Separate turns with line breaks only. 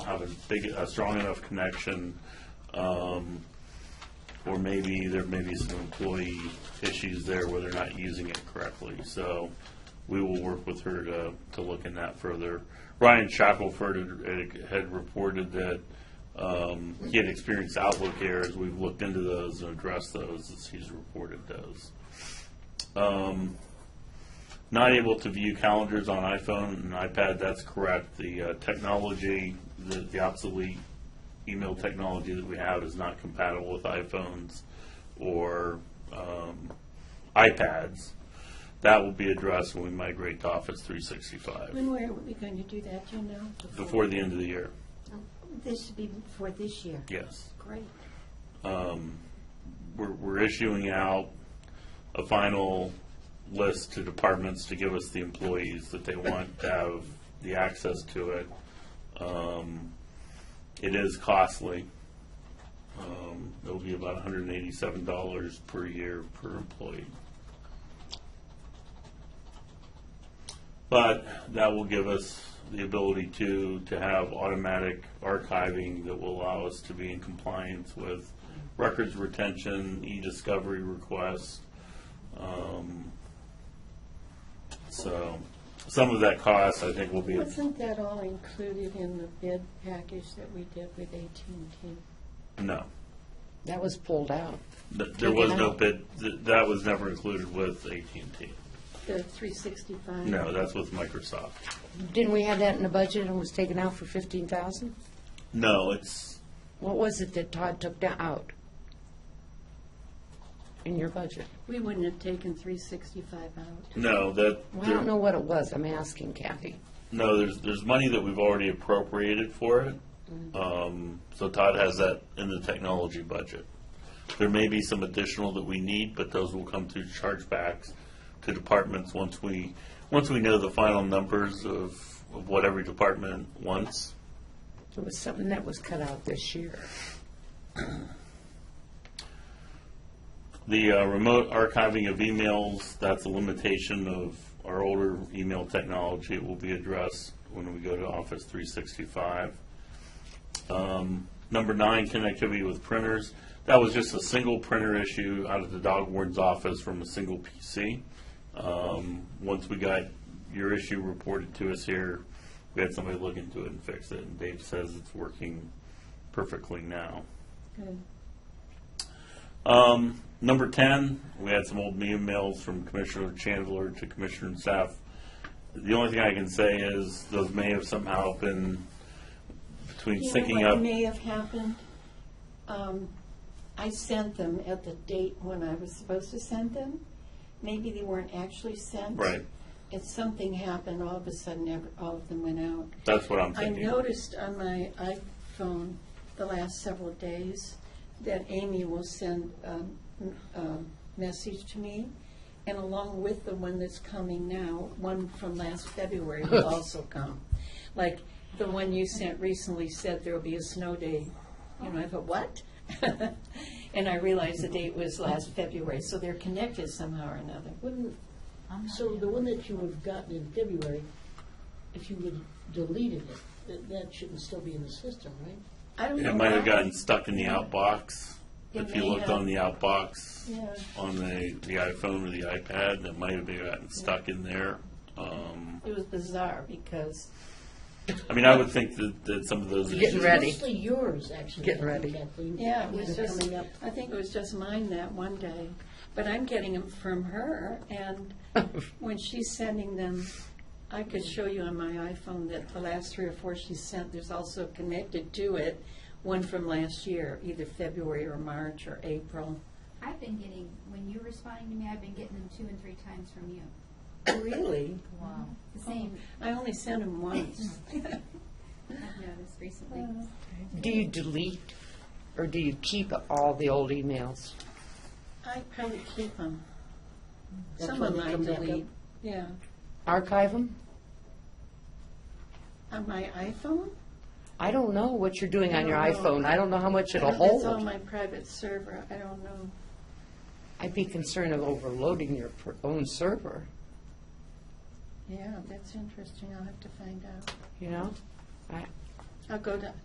have a big, a strong enough connection, um, or maybe there may be some employee issues there where they're not using it correctly. So we will work with her to, to look in that further. Ryan Shackelford had- had reported that um, he had experienced Outlook errors. We've looked into those and addressed those as he's reported those. Um, Not able to view calendars on iPhone and iPad, that's correct. The uh, technology, the the obsolete email technology that we have is not compatible with iPhones or um, iPads. That will be addressed when we migrate to Office 365,
When were we going to do that, do you know?
before the end of the year,
This would be before this year?
yes.
Great.
We're we're issuing out a final list to departments to give us the employees that they want to have the access to it. Um, It is costly. Um, It'll be about $187 per year per employee. But that will give us the ability to, to have automatic archiving that will allow us to be in compliance with records retention, e-discovery requests. Um, So, some of that cost, I think, will be,
Wasn't that all included in the bid package that we did with AT&T?
no.
That was pulled out.
Th- There was no bid, th- that was never included with AT&T.
The 365?
No, that's with Microsoft.
Didn't we have that in the budget and was taken out for fifteen thousand?
No, it's,
What was it that Todd took da- out? In your budget?
We wouldn't have taken 365 out.
no, that.
Well, I don't know what it was. I'm asking Kathy.
No, there's, there's money that we've already appropriated for it.
Mm-hmm.
Um, So Todd has that in the technology budget. There may be some additional that we need, but those will come through chargebacks to departments once we, once we know the final numbers of of what every department wants.
It was something that was cut out this year.
The uh, remote archiving of emails, that's a limitation of our older email technology. It will be addressed when we go to Office 365. Um, Number nine, connectivity with printers. That was just a single printer issue out of the dog warden's office from a single PC. Um, Once we got your issue reported to us here, we had somebody look into it and fix it, and Dave says it's working perfectly now.
Good.
Um, number ten, we had some old emails from Commissioner Chandler to Commissioner and staff. The only thing I can say is those may have somehow been between
You know
syncing
what
up.
may have happened? Um, I sent them at the date when I was supposed to send them. Maybe they weren't actually sent.
Right.
If something happened, all of a sudden, ev- all of them went out.
That's what I'm
I
thinking.
noticed on my iPhone the last several days that Amy will send um, m- a message to me, and along with the one that's coming now, one from last February will also come. Like, the one you sent recently said there'll be a snow day. You know, I thought, what? And I realized the date was last February, so they're connected somehow or another.
Wouldn't, so the one that you would have gotten in February, if you would deleted it, that, that shouldn't still be in the system, right?
I don't know.
It might have
why.
gotten stuck in the outbox.
It
If you
may
looked
have.
on the outbox
Yeah.
on the, the iPhone or the iPad, it might have been gotten stuck in there. Um,
It was bizarre, because
I mean, I would think that, that some of those.
Getting
issues-
It's
ready.
Mostly yours, actually.
Getting
I think,
ready.
Kathleen.
Yeah, it was
They're
just,
Coming up.
I think it was just mine that one day, but I'm getting them from her, and when she's sending them, I could show you on my iPhone that the last three or four she sent, there's also connected to it, one from last year, either February or March or April.
I've been getting, when you're responding to me, I've been getting them two and three times from you.
Really?
Wow. The same,
I only sent them once.
I've noticed recently.
Do you delete or do you keep all the old emails?
I probably keep them.
That's
Some
why
of
they
them I
come back up?
delete, yeah.
Archive them?
On my iPhone?
I don't know what you're doing on your
I don't know.
iPhone. I don't know how much it'll
It's on
hold.
my private server, I don't know.
I'd be concerned of overloading your per- own server,
Yeah, that's interesting, I'll have to find out.
you know? I,
I'll go to